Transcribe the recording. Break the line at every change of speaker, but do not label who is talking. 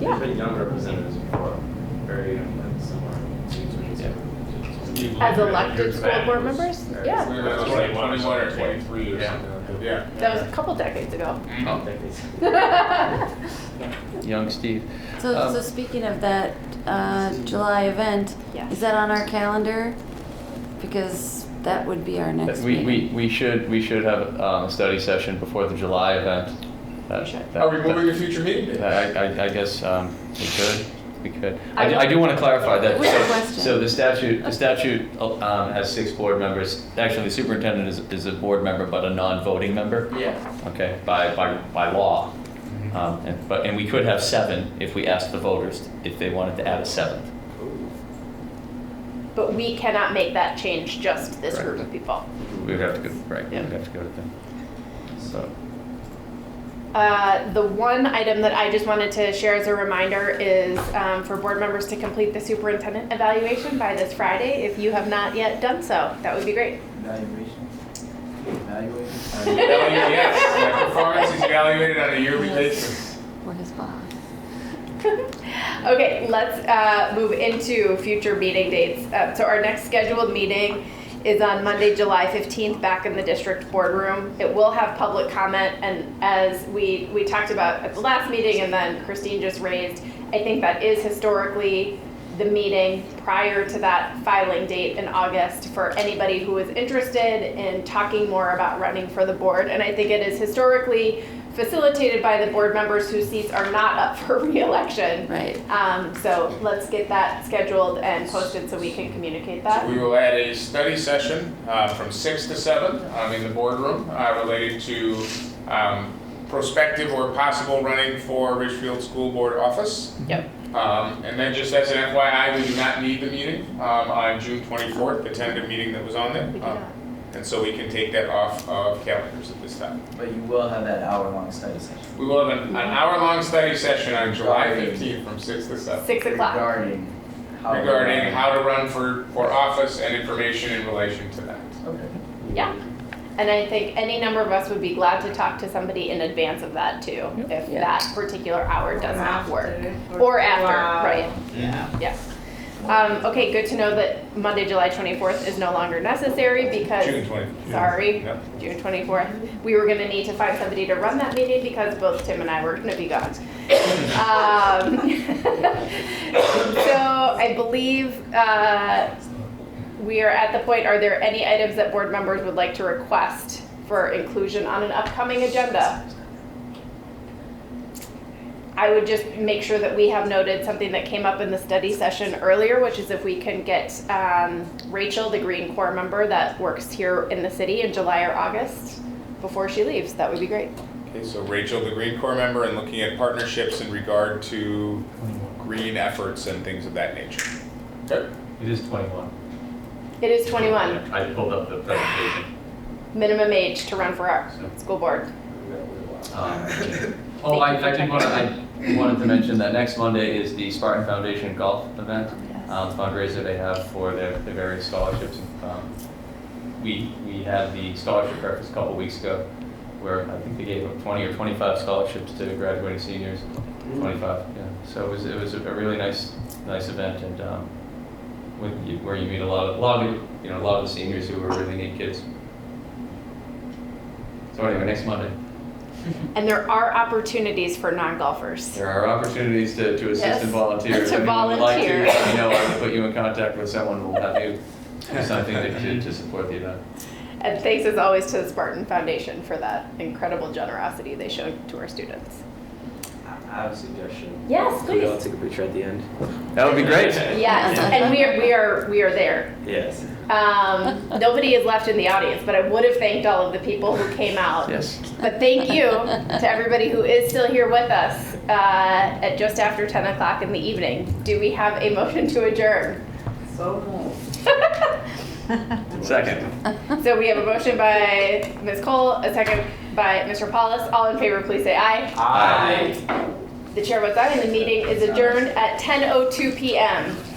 There's
Yeah.
been young representatives before, very um, young, like somewhere. teens or
Yeah.
something.
As elected school board members? Yeah,
We were like
Twenty one or
21 or
something.
23 or
Yeah.
something like that. Yeah.
that was a couple decades ago.
Oh,
Decades.
young Steve.
So,
Um,
so speaking of that uh, July event,
Yes.
is that on our calendar? Because that would be our next
We,
meeting.
we, we should, we should have um, a study session before the July event. That-
We should.
that-
Are we moving to future meeting
that-
days?
I, I, I guess, um, we could, we could.
I
I do, I do want to clarify that.
We have a
so-
question.
So the statute, the statute, um, has six board members. Actually, the superintendent is, is a board member, but a non-voting member.
Yeah.
okay, by, by, by law. Um, and, but, and we could have seven if we asked the voters if they wanted to add a seventh.
But we cannot make that change, just this group
Correct.
of people.
We would have to go, right, we
Yeah.
would have to go to them. So,
Uh, The one item that I just wanted to share as a reminder is um, for board members to complete the superintendent evaluation by this Friday. If you have not yet done so, that would be great.
Evaluation?
Evaluate-
Evaluation?
Yes, my performance is evaluated on a yearly
Yes.
basis.
We're his boss.
Okay, let's uh, move into future meeting dates. Uh, So our next scheduled meeting is on Monday, July 15th, back in the district boardroom. It will have public comment, and as we, we talked about at the last meeting, and then Christine just raised, I think that is historically the meeting prior to that filing date in August for anybody who is interested in talking more about running for the board. And I think it is historically facilitated by the board members whose seats are not up for reelection.
Right.
Um, so let's get that scheduled and posted so we can communicate that.
We will add a study session uh, from 6 to 7 um, in the boardroom uh, related to um, prospective or possible running for Richfield School Board office.
Yep.
Um, And then just as an FYI, we do not need the meeting um, on June 24th, the tentative meeting that was on there.
We do
Um,
not.
And so we can take that off of calendars at this time.
But you will have that hour-long study session.
We will have an, an hour-long study session on July 15th from 6 to 7
Six o'clock.
Regarding how.
regarding how to run for, for office and information in relation to that.
Okay.
Yeah. And I think any number of us would be glad to talk to somebody in advance of that too, if
Yeah.
that particular hour does not work. Or after, right?
Yeah.
Yeah. Um, okay, good to know that Monday, July twenty-fourth is no longer necessary
June
because,
20th.
sorry,
Yep.
June twenty-fourth. We were gonna need to find somebody to run that meeting because both Tim and I were gonna be gone. Um, So I believe, uh, we are at the point, are there any items that board members would like to request for inclusion on an upcoming agenda? I would just make sure that we have noted something that came up in the study session earlier, which is if we can get um, Rachel, the Green Corps member that works here in the city in July or August, before she leaves, that would be great.
Okay, so Rachel, the Green Corps member, and looking at partnerships in regard to green efforts and things of that nature. Okay.
It is 21.
It is 21,
I pulled up the presentation.
minimum age to run for our school board.
um, oh, I, I did want to, I wanted to mention that next Monday is the Spartan Foundation Golf event. Um, fundraiser they have for their, their various scholarships. Um, we, we had the scholarship breakfast a couple weeks ago where I think they gave up 20 or 25 scholarships to graduating seniors. 25, yeah. So it was, it was a really nice, nice event and, um, with you, where you meet a lot of, a lot of, you know, a lot of the seniors who were really neat kids. So anyway, next Monday.
And there are opportunities for non-golfers.
There are opportunities to, to assist
Yes,
and volunteer.
to
If anyone would like to,
volunteer.
let me know, I can put you in contact with someone who will have you do something to, to- to support the event.
And thanks as always to the Spartan Foundation for that incredible generosity they showed to our students.
I have a suggestion.
Yes,
Can we all take a picture at the end?
That would be great.
Yes, and we are, we are, we are there.
Yes.
Um, nobody is left in the audience, but I would have thanked all of the people who came out.
Yes.
But thank you to everybody who is still here with us uh, at just after 10 o'clock in the evening. Do we have a motion to adjourn?
Second.
So we have a motion by Ms. Cole, a second by Mr. Paulus. All in favor, please say aye.
Aye.
oh The chair votes aye, and the meeting is adjourned at 10:02 p.m.